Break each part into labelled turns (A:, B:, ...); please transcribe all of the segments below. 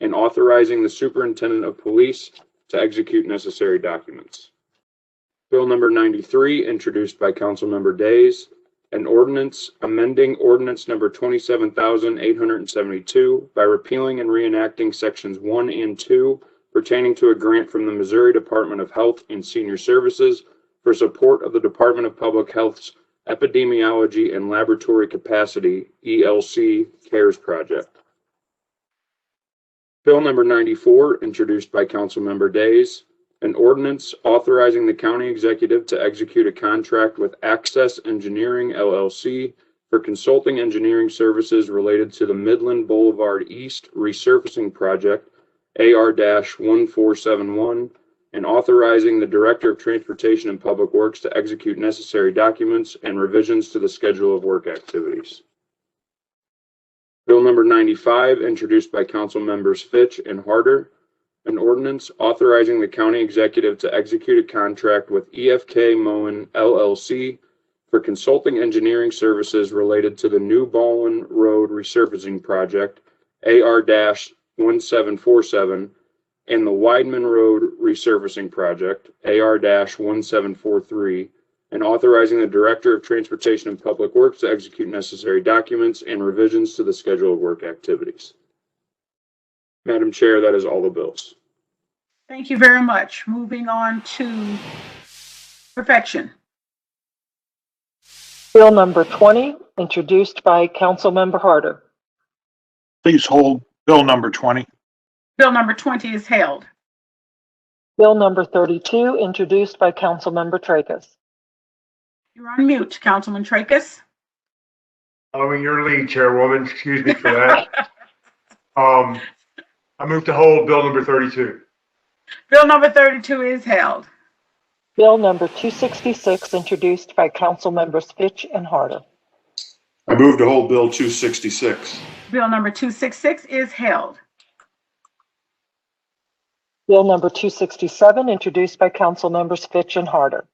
A: and authorizing the superintendent of police to execute necessary documents. Bill number 93, introduced by Councilmember Days, an ordinance amending ordinance number 27,872 by repealing and reenacting sections 1 and 2 pertaining to a grant from the Missouri Department of Health and Senior Services for support of the Department of Public Health's Epidemiology and Laboratory Capacity ELC CARES Project. Bill number 94, introduced by Councilmember Days, an ordinance authorizing the county executive to execute a contract with Access Engineering LLC for consulting engineering services related to the Midland Boulevard East Resurfacing Project, AR-1471, and authorizing the Director of Transportation and Public Works to execute necessary documents and revisions to the schedule of work activities. Bill number 95, introduced by council members Fitch and Harder, an ordinance authorizing the county executive to execute a contract with EFK Moen LLC for consulting engineering services related to the New Ballin Road Resurfacing Project, AR-1747, and the Wideman Road Resurfacing Project, AR-1743, and authorizing the Director of Transportation and Public Works to execute necessary documents and revisions to the schedule of work activities. Madam Chair, that is all the bills.
B: Thank you very much. Moving on to perfection.
C: Bill number 20, introduced by Councilmember Harder.
D: Please hold Bill number 20.
B: Bill number 20 is held.
C: Bill number 32, introduced by Councilmember Tracus.
B: You're on mute, Councilman Tracus.
E: Following your lead, Chairwoman, excuse me for that. Um, I move to hold bill number 32.
B: Bill number 32 is held.
C: Bill number 266, introduced by Councilmembers Fitch and Harder.
F: I move to hold Bill 266.
B: Bill number 266 is held.
C: Bill number 267, introduced by Councilmembers Fitch and Harder.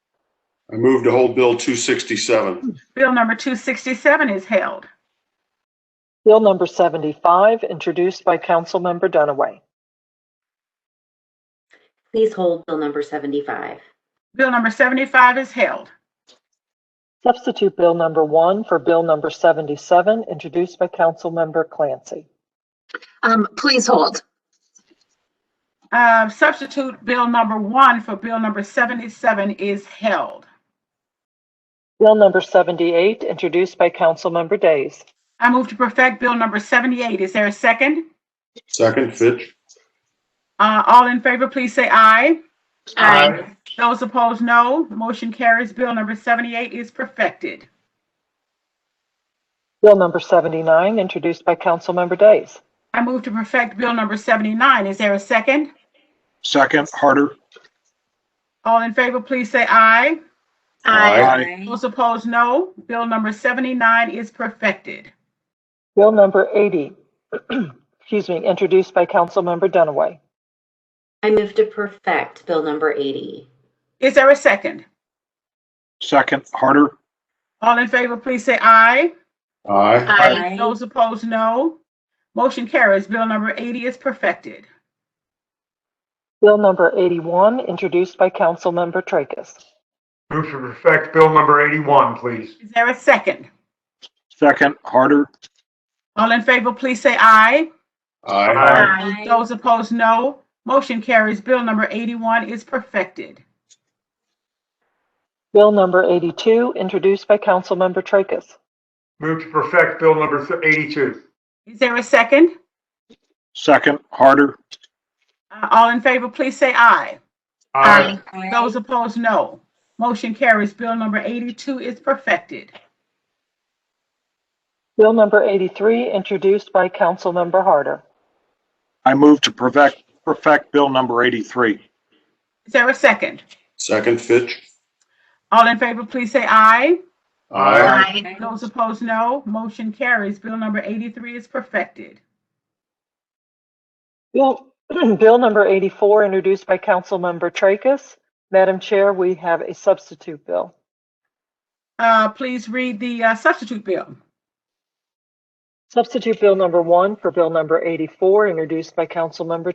F: I move to hold Bill 267.
B: Bill number 267 is held.
C: Bill number 75, introduced by Councilmember Dunaway.
G: Please hold Bill number 75.
B: Bill number 75 is held.
C: Substitute Bill number 1 for Bill number 77, introduced by Councilmember Clancy.
H: Um, please hold.
B: Uh, Substitute bill number 1 for bill number 77 is held.
C: Bill number 78, introduced by Councilmember Days.
B: I move to perfect bill number 78. Is there a second?
F: Second, Fitch.
B: Uh, All in favor, please say aye.
H: Aye.
B: Those opposed, no. Motion carries. Bill number 78 is perfected.
C: Bill number 79, introduced by Councilmember Days.
B: I move to perfect Bill number 79. Is there a second?
D: Second, Harder.
B: All in favor, please say aye.
F: Aye.
B: Those opposed, no. Bill number 79 is perfected.
C: Bill number 80, excuse me, introduced by Councilmember Dunaway.
G: I move to perfect Bill number 80.
B: Is there a second?
D: Second, Harder.
B: All in favor, please say aye.
F: Aye.
B: Those opposed, no. Motion carries. Bill number 80 is perfected.
C: Bill number 81, introduced by Councilmember Tracus.
E: Move to perfect bill number 81, please.
B: Is there a second?
D: Second, Harder.
B: All in favor, please say aye.
F: Aye.
B: Those opposed, no. Motion carries. Bill number 81 is perfected.
C: Bill number 82, introduced by Councilmember Tracus.
E: Move to perfect bill number 82.
B: Is there a second?
D: Second, Harder.
B: Uh, All in favor, please say aye.
E: Aye.
B: Those opposed, no. Motion carries. Bill number 82 is perfected.
C: Bill number 83, introduced by Councilmember Harder.
D: I move to perfect, perfect Bill number 83.
B: Is there a second?
F: Second, Fitch.
B: All in favor, please say aye.
F: Aye.
B: Those opposed, no. Motion carries. Bill number 83 is perfected.
C: Bill, Bill number 84, introduced by Councilmember Tracus. Madam Chair, we have a substitute bill.
B: Uh, Please read the uh, substitute bill.
C: Substitute Bill number 1 for Bill number 84, introduced by Councilmember